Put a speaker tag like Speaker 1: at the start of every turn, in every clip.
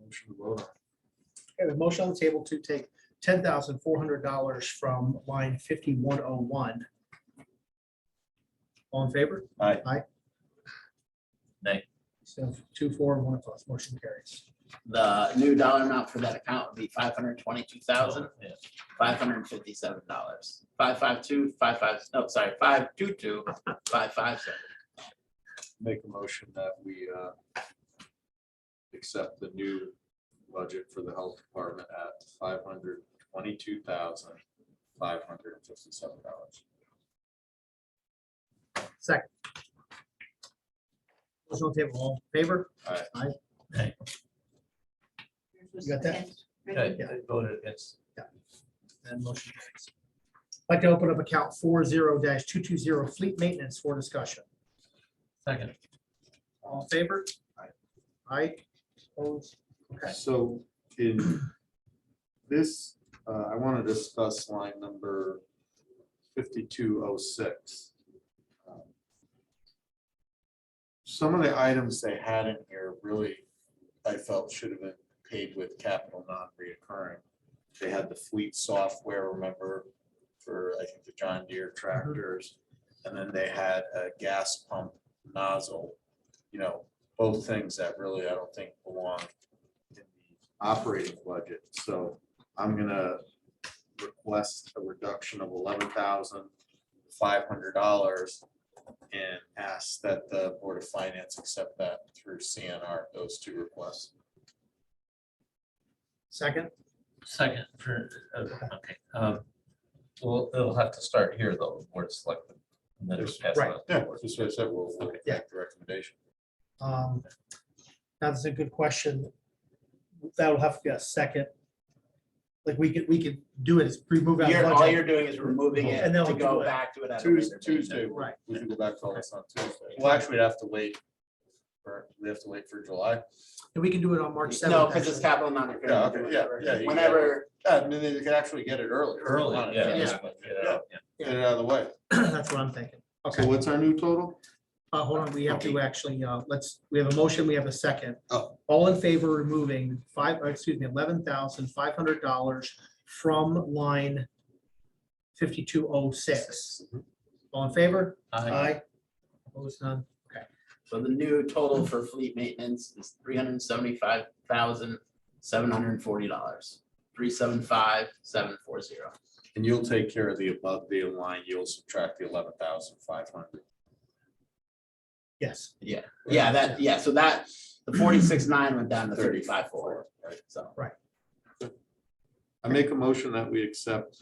Speaker 1: Motion to vote on.
Speaker 2: Okay, we have a motion on the table to take ten thousand four hundred dollars from line fifty-one oh one. All in favor?
Speaker 3: Aye.
Speaker 2: Aye.
Speaker 4: Nay.
Speaker 2: So two, four, and one opposed, motion carries.
Speaker 5: The new dollar amount for that account would be five hundred twenty-two thousand,
Speaker 4: Yeah.
Speaker 5: five hundred fifty-seven dollars. Five five two, five five, no, sorry, five two two, five five seven.
Speaker 1: Make a motion that we uh, accept the new budget for the health department at five hundred twenty-two thousand, five hundred and fifty-seven dollars.
Speaker 2: Second. Motion on the table, all in favor?
Speaker 1: Aye.
Speaker 2: Aye. You got that?
Speaker 4: Okay,
Speaker 2: Yeah.
Speaker 4: I voted against.
Speaker 2: And motion carries. I'd Like to open up account four zero two two zero fleet maintenance for discussion.
Speaker 4: Second.
Speaker 2: All in favor?
Speaker 1: Aye.
Speaker 2: Aye. Opposed? Okay.
Speaker 1: So in this, uh, I want to discuss line number fifty-two oh six. Um, Some of the items they had in here really, I felt should have been paid with capital non-reoccurring. They had the fleet software, remember, for I think the John Deere tractors. And then they had a gas pump nozzle, you know, both things that really I don't think belong in the operating budget, so I'm gonna request a reduction of eleven thousand five hundred dollars and ask that the Board of Finance accept that through CNR, those two requests.
Speaker 2: Second,
Speaker 4: Second for, uh, okay. um, Well, it'll have to start here though, where it's like. and then just pass it
Speaker 2: Right.
Speaker 4: on.
Speaker 1: Yeah, that's what I said, we'll, we'll
Speaker 4: Okay.
Speaker 1: make the recommendation.
Speaker 2: um, that's a good question. That'll have to be a second. Like, we could, we could do it, is remove out.
Speaker 5: You're, all
Speaker 2: budget.
Speaker 5: you're doing is removing it
Speaker 2: And then
Speaker 5: to
Speaker 2: we'll do
Speaker 5: go
Speaker 2: it.
Speaker 5: back to it. at a
Speaker 1: Tues-
Speaker 5: later date.
Speaker 1: Tuesday, we
Speaker 2: Right,
Speaker 1: we can go back to all this on Tuesday. Well, actually, we'd have to wait, for we have to wait for July.
Speaker 2: and we can do it on March seventh.
Speaker 5: No, because it's capital non-recurring.
Speaker 1: Yeah, okay, yeah, yeah, you got it.
Speaker 5: Whenever,
Speaker 1: Yeah, and then they could actually get it early.
Speaker 4: Early, yeah.
Speaker 1: Get
Speaker 4: just get it out, yeah.
Speaker 1: it out of the way.
Speaker 2: That's what I'm thinking.
Speaker 1: So
Speaker 2: Okay,
Speaker 1: what's our new total?
Speaker 2: uh, hold on, we have to actually, uh, let's, we have a motion, we have a second.
Speaker 1: Oh.
Speaker 2: All in favor of removing five, or excuse me, eleven thousand five hundred dollars from line fifty-two oh six.
Speaker 5: Mm-hmm.
Speaker 2: All in favor?
Speaker 4: Aye.
Speaker 2: Opposed, none?
Speaker 5: so the new total for fleet maintenance is three hundred seventy-five thousand, seven hundred forty dollars. Three seven five, seven four zero.
Speaker 1: And you'll take care of the above the line, you'll subtract the eleven thousand five hundred.
Speaker 2: Yes,
Speaker 5: Yeah, yeah, that, yeah, so that, the forty-six nine went down to thirty-five four, so.
Speaker 1: I make a motion that we accept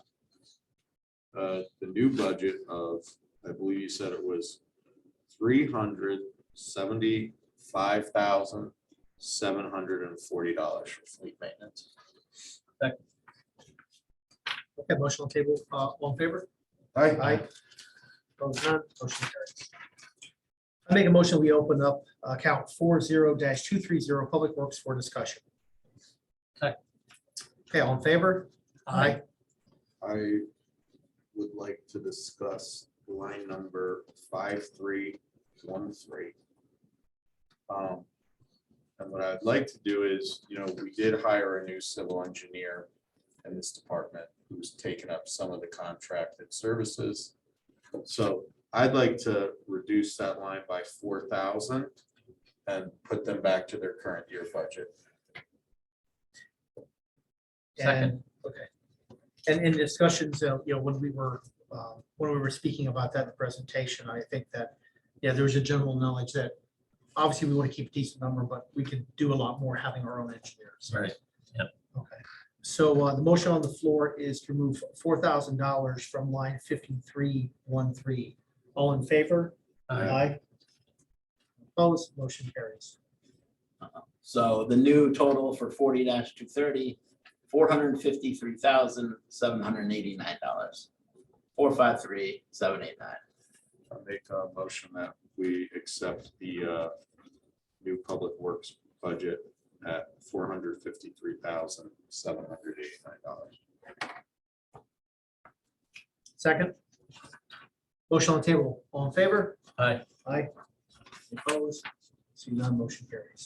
Speaker 1: uh, the new budget of, I believe you said it was three hundred seventy-five thousand seven hundred and forty dollars for fleet maintenance.
Speaker 2: okay, motion on the table, uh, all in favor? Aye. Opposed, none? Motion carries. I make a motion, we open up account four zero two three zero, Public Works for discussion.
Speaker 4: Second.
Speaker 2: Okay, all in favor? Aye.
Speaker 1: I would like to discuss line number five, three, one, three. Um, and what I'd like to do is, you know, we did hire a new civil engineer in this department who's taken up some of the contracted services. So I'd like to reduce that line by four thousand and put them back to their current year budget.
Speaker 2: And, okay. And in discussions, uh, you know, when we were, uh, when we were speaking about that in the presentation, I think that, yeah, there was a general knowledge that obviously we want to keep a decent number, but we could do a lot more having our own engineers.
Speaker 4: Right.
Speaker 2: Okay, so uh, the motion on the floor is to remove four thousand dollars from line fifty-three one three. All in favor?
Speaker 4: Aye.
Speaker 2: Opposed, motion carries.
Speaker 5: So the new total for forty two thirty, four hundred fifty-three thousand, seven hundred eighty-nine dollars. Four five three, seven eight nine.
Speaker 1: I make a motion that we accept the uh, new public works budget at four hundred fifty-three thousand, seven hundred eighty-nine dollars.
Speaker 2: Second. Motion on the table, all in favor?
Speaker 4: Aye.
Speaker 2: Aye. Opposed, see none, motion carries.